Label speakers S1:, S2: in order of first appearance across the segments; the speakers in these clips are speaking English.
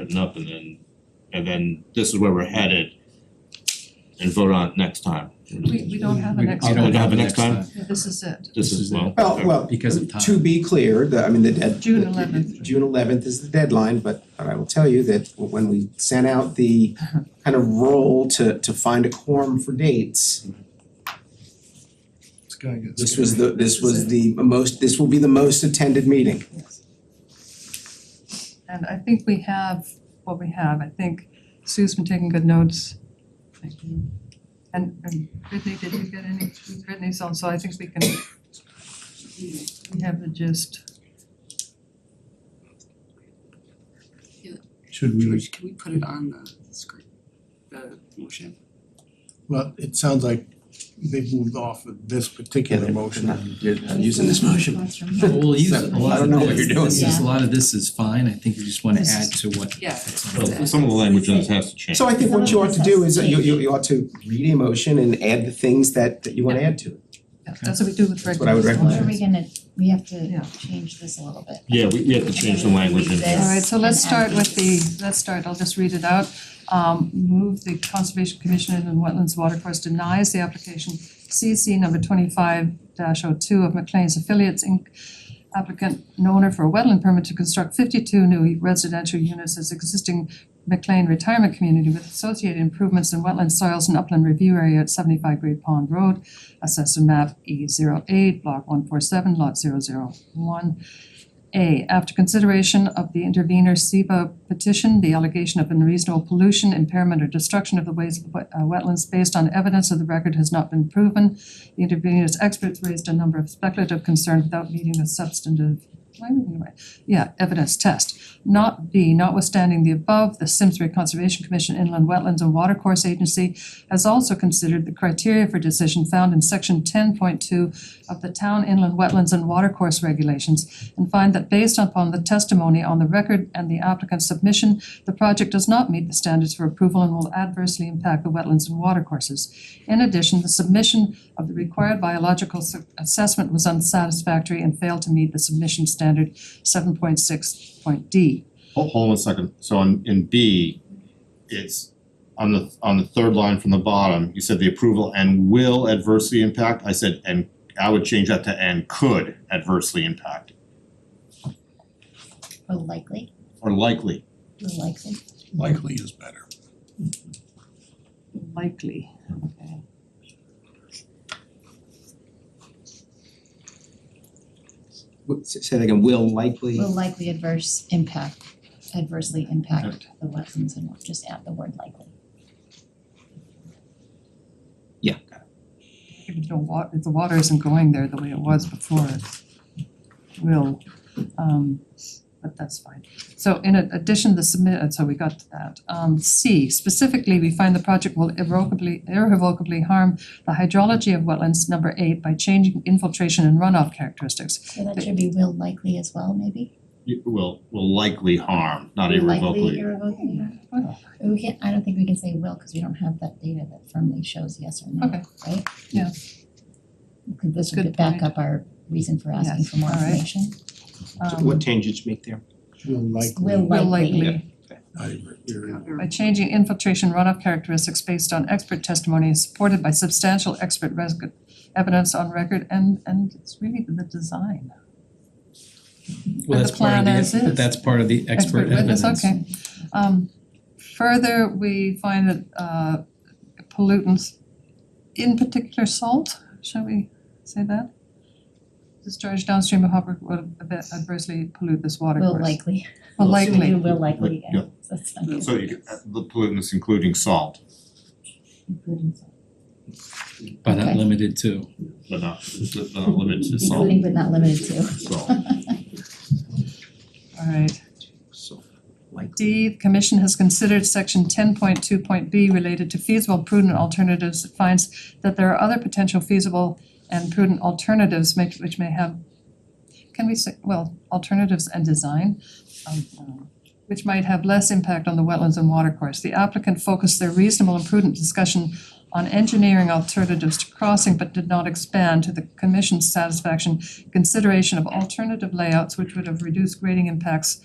S1: written up and then, and then this is where we're headed and vote on it next time.
S2: We we don't have an
S1: don't
S2: extra,
S1: have a next time?
S2: yeah, this is it.
S1: This is, well,
S3: Oh, Well, well,
S4: Because of time.
S3: to be clear, the, I mean, the dead.
S2: June
S3: the-
S2: 11th.
S3: June eleventh is the deadline, but I will tell you that when we sent out the kind of roll to to find a quorum for dates,
S5: It's gonna get
S3: this
S5: scary.
S3: was the, this was the most, this will be the most attended meeting.
S2: Yes. And I think we have what we have, I think Sue's been taking good notes. Thank you. And and Brittany, did you get any, Brittany's on, so I think we can, we have the gist.
S5: Should we,
S6: George, can we put it on the script, the motion?
S5: well, it sounds like they moved off of this particular motion.
S3: using this motion.
S4: Well, we'll use a
S3: Seven.
S4: lot
S3: I don't
S4: of
S3: know what you're
S4: this,
S3: doing.
S4: this is, a lot of this is fine, I think we just wanna
S2: This
S4: add to what.
S6: Yeah.
S1: well, some of the language in this has to change.
S3: So I think what you ought to do is you you you ought to read a motion and add the things that that you wanna add to it.
S2: Yeah, That's what we do with
S3: That's
S2: regular.
S3: what I would
S7: What are
S3: recommend.
S7: we gonna, we have
S2: Yeah.
S7: to change this a little bit.
S1: Yeah, we, we have to change the language in here.
S2: All right, so let's start with the, let's start, I'll just read it out. Um, move the Conservation Commission and Wetlands Watercourse denies the application CC number twenty-five 2 of McLean's Affiliates Inc. Applicant and owner for a wetland permit to construct fifty-two new residential units as existing McLean Retirement Community with associated improvements in wetland soils and upland review area at seventy-five Great Pond Road, assessor map E 8 block one four seven, lot 001. A, after consideration of the intervenor SEBA petition, the allegation of unreasonable pollution, impairment, or destruction of the ways, uh, wetlands based on evidence of the record has not been proven. The intervenor's experts raised a number of speculative concerns without meeting the substantive, am I reading it right? Yeah, evidence test. Not B, notwithstanding the above, the Simsbury Conservation Commission Inland Wetlands and Watercourse Agency has also considered the criteria for decision found in section ten point two of the Town Inland Wetlands and Watercourse Regulations and find that based upon the testimony on the record and the applicant's submission, the project does not meet the standards for approval and will adversely impact the wetlands and watercourses. In addition, the submission of the required biological s- assessment was unsatisfactory and failed to meet the submission standard seven point six point D.
S8: Hold hold on a second, so on in B, it's on the on the third line from the bottom, you said the approval and will adversely impact, I said and I would change that to and could adversely impact,
S7: Will likely,
S8: or likely.
S7: will likely.
S5: Likely is better.
S2: Likely, okay.
S3: Say say that again, will likely.
S7: Will likely adverse impact, adversely impact the wetlands and we'll just add the word likely.
S2: If the wa- if the water isn't going there the way it was before, it will, um, but that's fine. So in a- addition, the submit, uh, so we got to that. Um, C, specifically, we find the project will irrevocably, irrevocably harm the hydrology of wetlands, number eight, by changing infiltration and runoff characteristics.
S7: So that should be will likely as well, maybe?
S8: It will will likely harm, not
S7: Will
S8: irrevocably.
S7: Likely irrevocably. Oh.
S2: Okay.
S7: We can't, I don't think we can say will, cause we don't have that data that firmly shows yes or no,
S2: Okay.
S7: right?
S2: Yeah.
S7: Could this would
S2: Good
S7: back
S2: point.
S7: up our reason for asking
S2: Yes,
S7: for more
S2: all right.
S7: information.
S2: Um,
S3: What change did you make there?
S5: Will likely.
S7: Will
S2: Will
S7: likely.
S2: likely.
S5: I agree. You're-
S2: by changing infiltration runoff characteristics based on expert testimony supported by substantial expert res- evidence on record and and it's really the design. And
S4: Well, that's
S2: the
S4: part of
S2: plan as
S4: the,
S2: is.
S4: that's part of the expert evidence.
S2: witness, okay. Um further, we find that uh pollutants, in particular salt, shall we say that? Discharged downstream of harbor would adversely pollute this water
S7: Will
S2: course.
S7: likely.
S2: Well,
S7: Should we
S2: likely.
S7: do will likely again?
S8: Yeah.
S7: So it's not good.
S8: So you could- the pollutants including salt,
S7: Including some.
S4: But not
S7: Okay.
S4: limited to.
S8: but uh, not but not limited to salt,
S7: Including but not limited to.
S8: salt.
S2: Alright.
S3: So likely.
S2: D, the commission has considered section ten point two point B related to feasible prudent alternatives. It finds that there are other potential feasible and prudent alternatives may- which may have, can we say, well, alternatives and design, um, um, which might have less impact on the wetlands and watercourse. The applicant focused their reasonable and prudent discussion on engineering alternatives to crossing, but did not expand to the commission's satisfaction consideration of alternative layouts which would have reduced grading impacts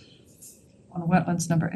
S2: on wetlands number